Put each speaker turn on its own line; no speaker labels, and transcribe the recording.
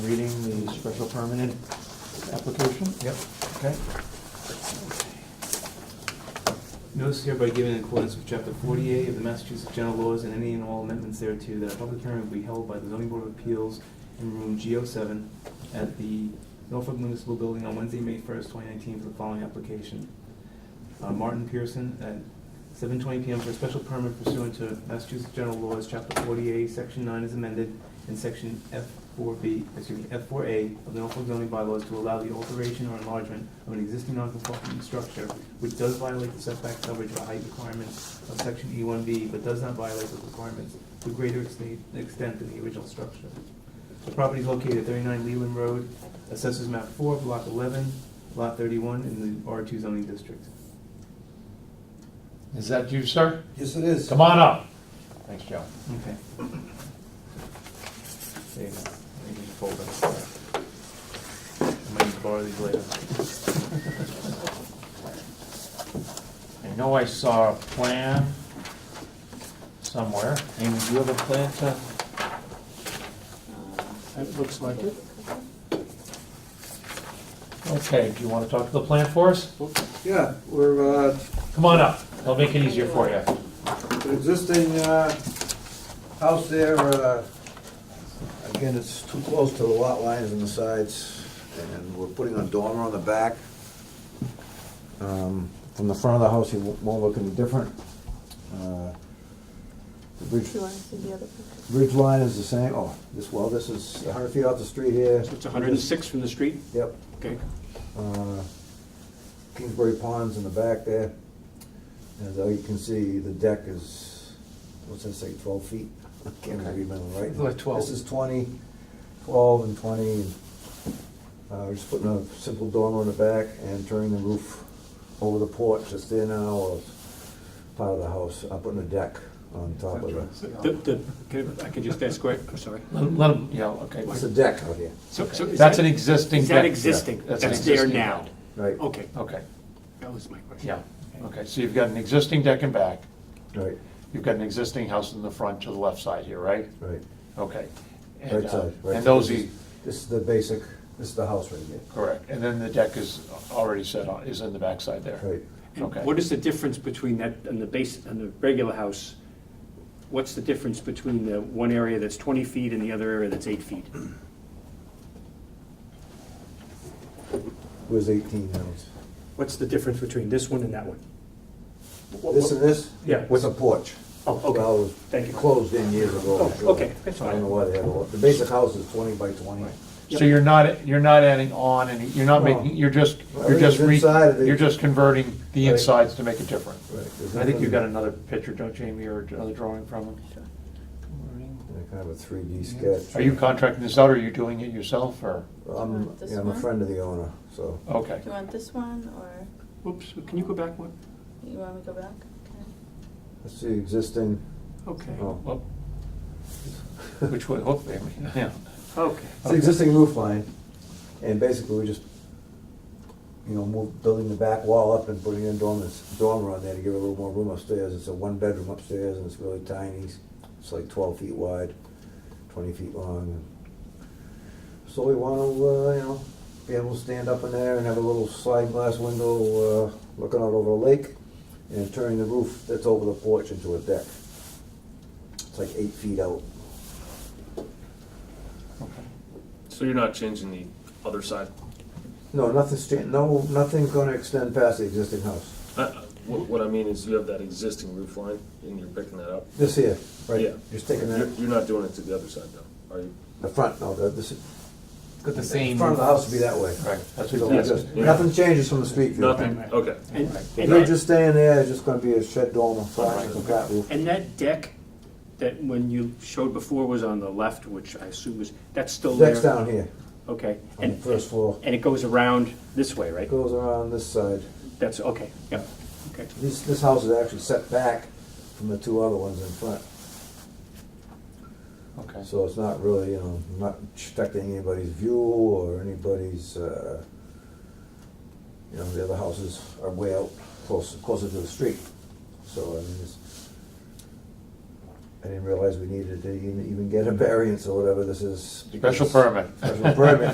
Reading the special permanent application?
Yep.
Okay.
Notice hereby given in accordance with chapter forty-eight of the Massachusetts General Laws and any and all amendments thereto, that a public hearing will be held by the zoning board of appeals in room G O seven at the Norfolk Municipal Building on Wednesday, May first, twenty nineteen, for the following application. Uh, Martin Pearson at seven twenty PM for a special permit pursuant to Massachusetts General Laws, chapter forty-eight, section nine is amended, and section F four B, excuse me, F four A of the Norfolk zoning bylaws to allow the alteration or enlargement of an existing non-conforming structure which does violate the setback coverage or height requirements of section E one B, but does not violate the requirements to a greater extent extent than the original structure. The property is located at thirty-nine Leland Road, assessors map four, block eleven, lot thirty-one, in the R two zoning district.
Is that you, sir?
Yes, it is.
Come on up. Thanks, Joe.
Okay. There you go. I need to fold them. I might need to borrow these later.
I know I saw a plan somewhere. Amy, do you have a plan to?
It looks like it.
Okay, do you want to talk to the plan for us?
Yeah, we're, uh,
Come on up. I'll make it easier for you.
the existing, uh, house there, uh, again, it's too close to the lot lines and the sides, and we're putting a dormer on the back. Um, From the front of the house, it won't won't look any different. Uh, The bridge,
Do you want to see the other picture?
bridge line is the same, oh, this, well, this is a hundred feet off the street here.
It's 106 from the street?
Yep,
Okay.
uh, Kingsbury Pond's in the back there. As uh, you can see, the deck is, what's that say, 12 feet? I can't remember, right?
It's like 12.
This is 20, 12 and 20. and, uh, We're just putting a simple dormer in the back and turning the roof over the porch that's there now, or part of the house, up on the deck on top of the,
The- the- can I I could just ask, quick, I'm sorry.
Let let him, yeah, okay.
it's a deck out here,
So- so is
That's
that-
an existing.
Is that
deck.
existing?
That's an
That's there
existing
now?
deck.
right?
Okay,
Okay,
that was my question.
yeah. Okay, so you've got an existing deck and back.
Right,
You've got an existing house in the front to the left side here, right?
right,
Okay. And,
right
uh,
side. right.
And those,
This
e-
is- This is the basic, this is the house right here,
correct. And then the deck is already set on, is in the back side there.
right?
And
Okay.
What is the difference between that and the base, and the regular house? What's the difference between the one area that's 20 feet and the other area that's 8 feet?
It was 18 ounce.
What's the difference between this one and that one? What-
This
what-
and this?
Yeah.
With a porch.
Oh, okay.
Well, it was
Thank you.
Closed in years ago.
Oh, okay, that's
I don't
fine.
know why they had a lot. The basic house is twenty by twenty.
So you're not, you're not adding on any, you're not
No.
making, you're just,
Well,
you're just,
it's
re-
inside of the-
you're just converting the
Right.
insides to make it different.
Right, there's
I think you've got
nothing-
another picture, don't you, Amy, or another drawing from him?
yeah, Kind of a three D sketch.
Are you contracting this out, or are you doing it yourself, or,
I'm,
Want Uh, this
yeah, I'm a
one?
friend of the owner, so.
Oh.
okay.
Do you want this one, or
Whoops, can you go back one?
you want me to go back? Okay.
That's the existing,
Okay,
oh.
Well, Which way, hopefully, I mean, yeah.
okay.
It's the existing roof line, and basically we just, you know, move, building the back wall up and putting in dormers, dormer on there to give it a little more room upstairs. It's a one bedroom upstairs and it's really tiny. It's like twelve feet wide, twenty feet long. So we wanna, uh, you know, be able to stand up in there and have a little sliding glass window, uh, looking out over the lake and turning the roof that's over the porch into a deck. It's like eight feet out.
So you're not changing the other side?
No, nothing's, cha- no, nothing's gonna extend past the existing house.
I- I- Uh, What what I mean is you have that existing roof line and you're picking that up?
This here,
Yeah.
right, just taking
You're
that,
you're not doing it to the other side though, are you?
the front, no, the, this,
Got the
the
same.
front of the house would be that way.
Right, that's
So
what,
we
yes,
just-
yeah.
Nothing changes from the street view.
Nothing, okay.
And- and
You're
that-
just staying there, it's just gonna be a shed dormer, flat,
Right.
flat roof.
And that deck that when you showed before was on the left, which I assume was, that's still there?
Deck's down here,
Okay.
on the
And-
first floor.
And it goes around this way, right?
It goes around this side.
That's, okay, yeah, okay.
This, this house is actually set back from the two other ones in front,
okay.
so it's not really, you know, not affecting anybody's view or anybody's, uh, you know, the other houses are way out, closer, closer to the street, so I mean, it's, I didn't realize we needed to even even get a variance or whatever this is.
Special
because-
permit.
Special permit.